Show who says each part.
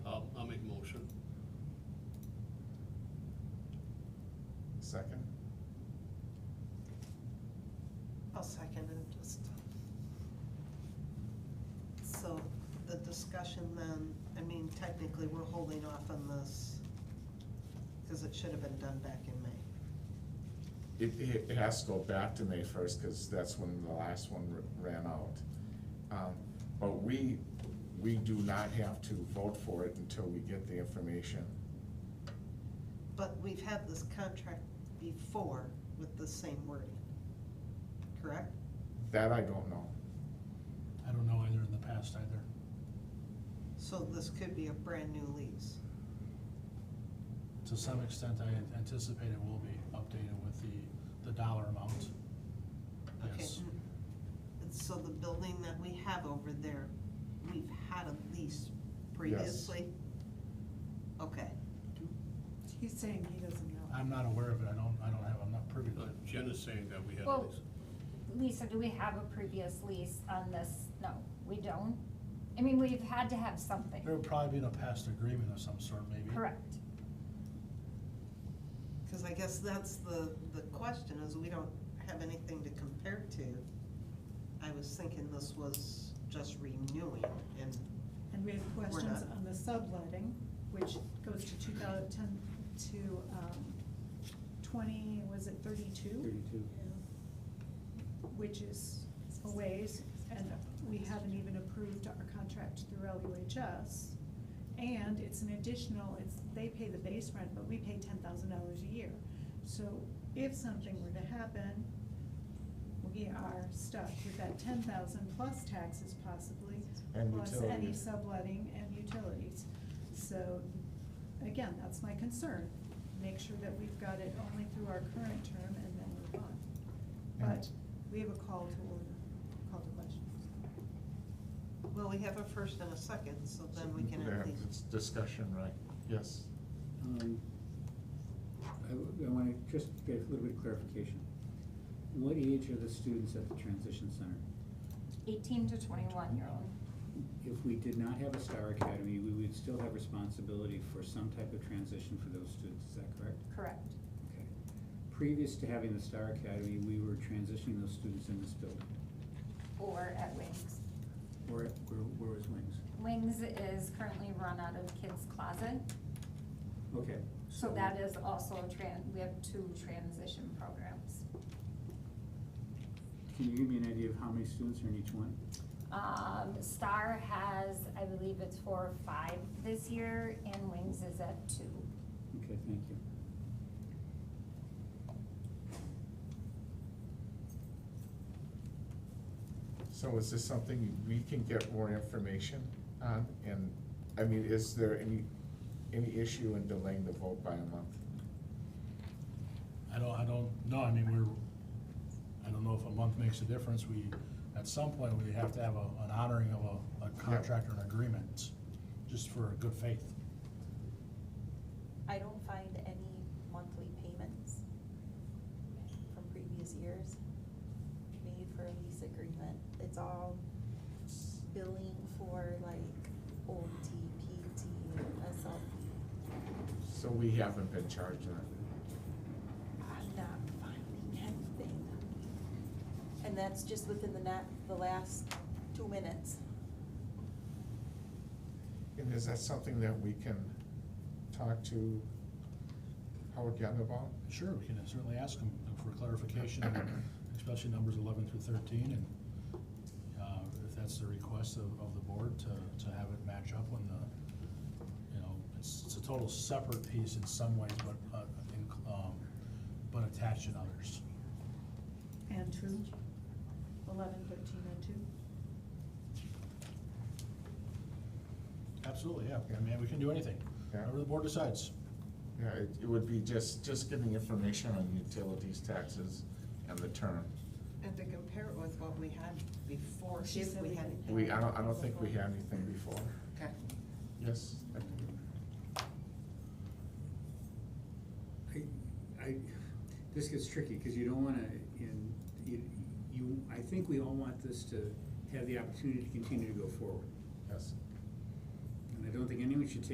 Speaker 1: And then, I mean, technically, we're holding off on this because it should have been done back in May.
Speaker 2: It, it it has to go back to May first, because that's when the last one r- ran out. Um, But we, we do not have to vote for it until we get the information.
Speaker 1: But we've had this contract before with the same wording, correct?
Speaker 2: That I don't know.
Speaker 3: I don't know either in the past either.
Speaker 1: So this could be a brand-new lease.
Speaker 3: To some extent, I anticipate it will be updated with the, the dollar amount.
Speaker 1: Okay.
Speaker 3: Yes.
Speaker 1: And so the building that we have over there, we've had a lease previously? Okay,
Speaker 4: He's saying he doesn't know.
Speaker 3: I'm not aware of it. I don't, I don't have, I'm not privy to
Speaker 5: But
Speaker 3: it.
Speaker 5: Uh, Jen is saying that we had
Speaker 6: Well-
Speaker 5: these.
Speaker 6: Lisa, do we have a previous lease on this? No, we don't. I mean, we've had to have something,
Speaker 3: There would probably be a past agreement of some sort, maybe.
Speaker 6: correct?
Speaker 1: because I guess that's the, the question, is we don't have anything to compare to. I was thinking this was just renewing, and
Speaker 4: And we have questions
Speaker 1: not.
Speaker 4: on the subletting, which goes to two thousand ten to, um, twenty, was it thirty-two?
Speaker 7: Thirty-two.
Speaker 4: Which is a ways, and we haven't even approved our contract through LUHS. And it's an additional, it's, they pay the base rent, but we pay ten thousand dollars a year. So if something were to happen, we are stuck with that ten thousand plus taxes possibly,
Speaker 2: And
Speaker 4: plus any
Speaker 2: utilities.
Speaker 4: subletting and utilities. So, again, that's my concern, make sure that we've got it only through our current term and then move on. But we have a call to order, call to question.
Speaker 1: well, we have a first and a second, so then we can
Speaker 2: There,
Speaker 1: at least.
Speaker 2: It's discussion, right, yes.
Speaker 7: Um, I, I wanna just get a little bit of clarification. What age are the students at the transition center?
Speaker 6: Eighteen to twenty-one year old.
Speaker 7: If we did not have a Star Academy, we would still have responsibility for some type of transition for those students, is that correct?
Speaker 6: Correct.
Speaker 7: Okay. Previous to having the Star Academy, we were transitioning those students in this building,
Speaker 6: Or at Wings.
Speaker 7: or, where, where was Wings?
Speaker 6: Wings is currently run out of kids' closet,
Speaker 7: Okay.
Speaker 6: so that is also a tran, we have two transition programs.
Speaker 7: Can you give me an idea of how many students are in each one?
Speaker 6: Um, Star has, I believe it's four or five this year, and Wings is at two.
Speaker 7: Okay, thank you.
Speaker 2: So is this something we can get more information on? And, I mean, is there any, any issue in delaying the vote by a month?
Speaker 3: I don't, I don't, know. I mean, we're, I don't know if a month makes a difference. We, at some point, we have to have a, an honoring of a, a contract or an agreement, just for good faith.
Speaker 8: I don't find any monthly payments from previous years made for a lease agreement. It's all billing for like OT, PT, SLP.
Speaker 2: So we haven't been charged on it.
Speaker 8: I'm not finding anything. And that's just within the na- the last two minutes.
Speaker 2: And is that something that we can talk to Howard Young about?
Speaker 3: Sure, we can certainly ask them for clarification, especially numbers eleven through thirteen, and uh, if that's the request of, of the board to, to have it match up when the, you know, it's, it's a total separate piece in some ways, but, uh, in- um, but attached in others.
Speaker 4: And two, eleven, thirteen, and two.
Speaker 3: Absolutely, yeah, I mean, we can do anything,
Speaker 2: Yeah.
Speaker 3: whatever the board decides.
Speaker 2: Yeah, it, it would be just, just getting information on utilities, taxes, and the term.
Speaker 1: And to compare it with what we had before,
Speaker 4: She
Speaker 1: if
Speaker 4: said
Speaker 1: we
Speaker 4: we
Speaker 1: had.
Speaker 4: didn't
Speaker 2: We, I don't, I don't think we had anything before.
Speaker 1: Okay.
Speaker 2: Yes?
Speaker 7: I, I, this gets tricky, cause you don't wanna, in, you, you, I think we all want this to have the opportunity to continue to go forward.
Speaker 2: Yes.
Speaker 7: And I don't think anyone should take